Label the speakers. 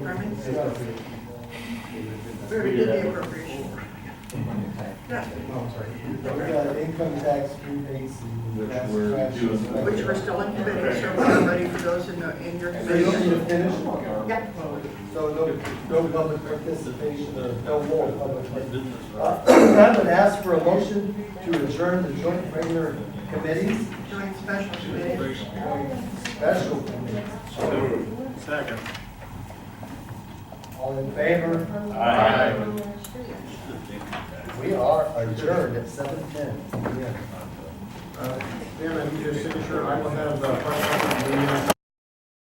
Speaker 1: Norman? We already did the appropriation. Yeah,
Speaker 2: Oh, We got income tax rebates and.
Speaker 3: Which
Speaker 2: gas
Speaker 3: we're
Speaker 2: tax.
Speaker 3: doing.
Speaker 1: Which we're still in committee, so we're ready for those in, the- in your
Speaker 2: So you need to
Speaker 1: committee.
Speaker 2: finish,
Speaker 1: Yeah.
Speaker 2: so no, no public participation, or no more public participation. Uh, I would ask for a motion to adjourn the joint regular committees,
Speaker 1: Joint special committee.
Speaker 2: special committees.
Speaker 4: Second.
Speaker 2: All in favor? We are adjourned at seven ten.
Speaker 4: Dan, I need your signature, I will have the.